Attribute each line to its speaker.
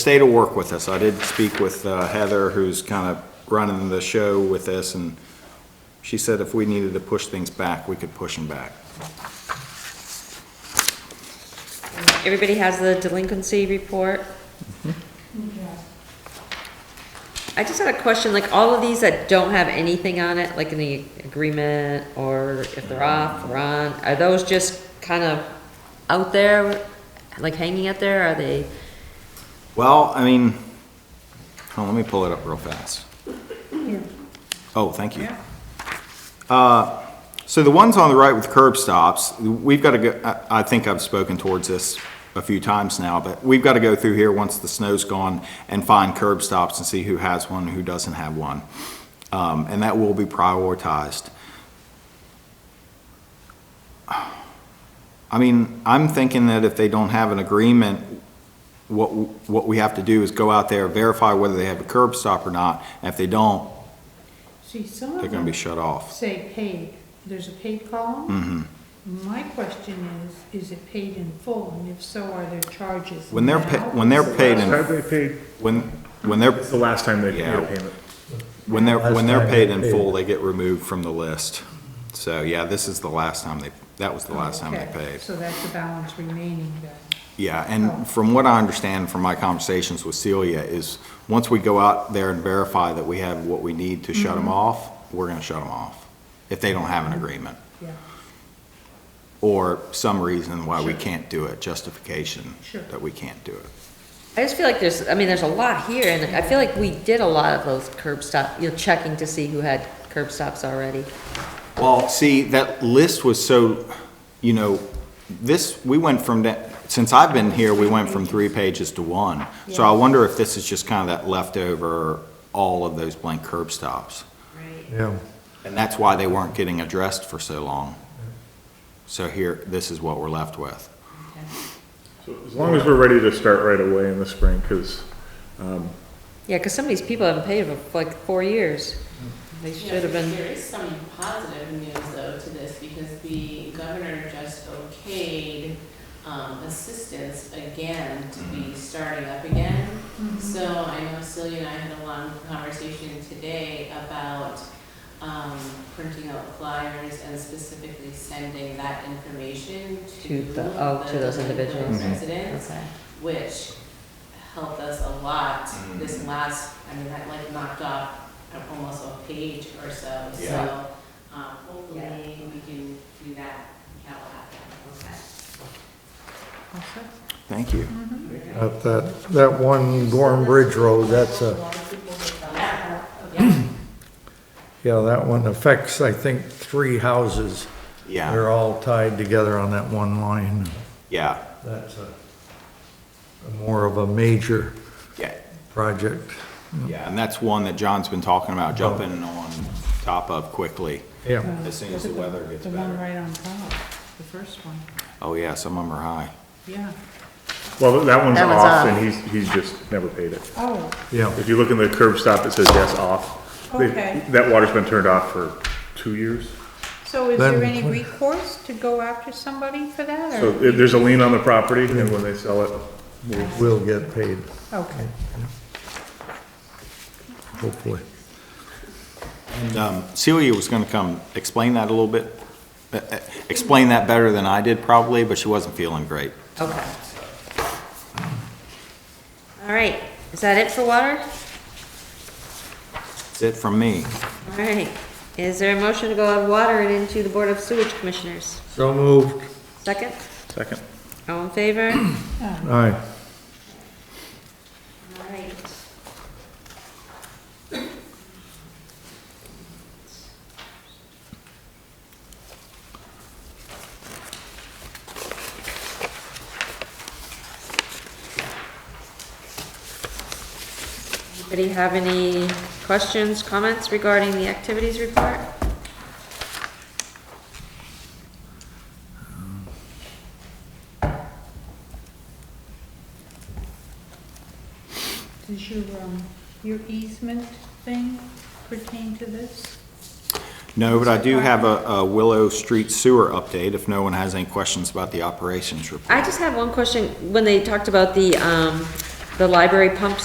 Speaker 1: stay to work with us. I did speak with uh, Heather, who's kind of running the show with this, and she said if we needed to push things back, we could push them back.
Speaker 2: Everybody has the delinquency report? I just had a question, like all of these that don't have anything on it, like in the agreement or if they're off or on, are those just kind of out there, like hanging out there? Are they,
Speaker 1: Well, I mean, oh, let me pull it up real fast. Oh, thank you. Uh, So the ones on the right with curb stops, we've got to go, I, I think I've spoken towards this a few times now, but we've got to go through here once the snow's gone and find curb stops and see who has one, who doesn't have one. Um, and that will be prioritized. I mean, I'm thinking that if they don't have an agreement, what, what we have to do is go out there, verify whether they have a curb stop or not. And if they don't,
Speaker 3: See, some
Speaker 1: they're
Speaker 3: of
Speaker 1: gonna
Speaker 3: them
Speaker 1: be shut off.
Speaker 3: say paid, there's a paid column.
Speaker 1: Mm-hmm.
Speaker 3: My question is, is it paid in full, and if so, are there charges
Speaker 1: When they're, pa-
Speaker 3: now?
Speaker 1: when they're paid in,
Speaker 4: Have they paid,
Speaker 1: when, when they're,
Speaker 4: it's the last time they paid
Speaker 1: Yeah.
Speaker 4: a payment.
Speaker 1: when they're, when they're
Speaker 5: Last time
Speaker 1: paid in
Speaker 5: they
Speaker 1: full, they get removed from the list. So, yeah, this is the last time they, that was the last time they
Speaker 3: Okay,
Speaker 1: paid.
Speaker 3: So that's the balance remaining then.
Speaker 1: Yeah, and from what I understand from my conversations with Celia is, once we go out there and verify that we have what we need to shut them off, we're gonna shut them off, if they don't have an agreement.
Speaker 3: Yeah,
Speaker 1: or some reason why we can't do it, justification
Speaker 3: Sure.
Speaker 1: that we can't do it.
Speaker 2: I just feel like there's, I mean, there's a lot here and I feel like we did a lot of those curb stop, you know, checking to see who had curb stops already.
Speaker 1: Well, see, that list was so, you know, this, we went from that, since I've been here, we went from three pages to one. So I wonder if this is just kind of that leftover, all of those blank curb stops.
Speaker 5: Yeah,
Speaker 1: And that's why they weren't getting addressed for so long. So here, this is what we're left with.
Speaker 4: As long as we're ready to start right away in the spring, because
Speaker 2: Yeah, because some of these people haven't paid for like four years. They
Speaker 6: Yeah,
Speaker 2: should have been.
Speaker 6: There is some positive news though to this because the governor just okayed um, assistance again to be starting up again. So I know Celia and I had a long conversation today about um, printing out flyers and specifically sending that information to.
Speaker 2: To the- oh, to
Speaker 6: the
Speaker 2: those
Speaker 6: delinquent
Speaker 2: individuals. Mhm.
Speaker 6: Residents
Speaker 2: Okay.
Speaker 6: which helped us a lot this last, I mean, that like knocked off almost a page or so,
Speaker 1: Yeah.
Speaker 6: so, um, hopefully we can do that, that will happen.
Speaker 3: also,
Speaker 1: Thank you.
Speaker 5: At that, that one Gorham Bridge Road, that's a,
Speaker 6: Yeah, yeah,
Speaker 5: yeah, that one affects, I think, three houses.
Speaker 1: Yeah,
Speaker 5: They're all tied together on that one line.
Speaker 1: yeah,
Speaker 5: That's a, a more of a major
Speaker 1: yeah.
Speaker 5: project.
Speaker 1: Yeah, and that's one that John's been talking about jumping on top of quickly
Speaker 5: Yeah,
Speaker 1: as soon as the weather gets
Speaker 3: the one
Speaker 1: better.
Speaker 3: right on top, the first one,
Speaker 1: Oh, yeah, some of them are high.
Speaker 3: yeah.
Speaker 4: well, that one's
Speaker 2: That one's
Speaker 4: off,
Speaker 2: off.
Speaker 4: and he's, he's just never paid it.
Speaker 3: Oh,
Speaker 5: yeah,
Speaker 4: If you look in the curb stop, it says yes, off. They-
Speaker 3: Okay.
Speaker 4: That water's been turned off for two years.
Speaker 3: so is
Speaker 5: Then-
Speaker 3: there any recourse to go after somebody for that,
Speaker 4: So
Speaker 3: or?
Speaker 4: there- there's a lien on the property, and when they sell it,
Speaker 5: will get paid,
Speaker 3: Okay,
Speaker 5: hopefully.
Speaker 1: And um, Celia was gonna come explain that a little bit, uh, uh, explain that better than I did probably, but she wasn't feeling great.
Speaker 2: Okay. All right, is that it for water?
Speaker 1: That's it from me.
Speaker 2: All right, is there a motion to go on water and into the Board of Sewage Commissioners?
Speaker 5: So moved.
Speaker 2: Second,
Speaker 4: second.
Speaker 2: all in favor? All
Speaker 5: All right,
Speaker 2: right. Anybody have any questions, comments regarding the activities report?
Speaker 3: does your, um, your easement thing pertain to this?
Speaker 1: No, but I do have a a Willow Street sewer update if no one has any questions about the operations report.
Speaker 2: I just have one question, when they talked about the, um, the library pump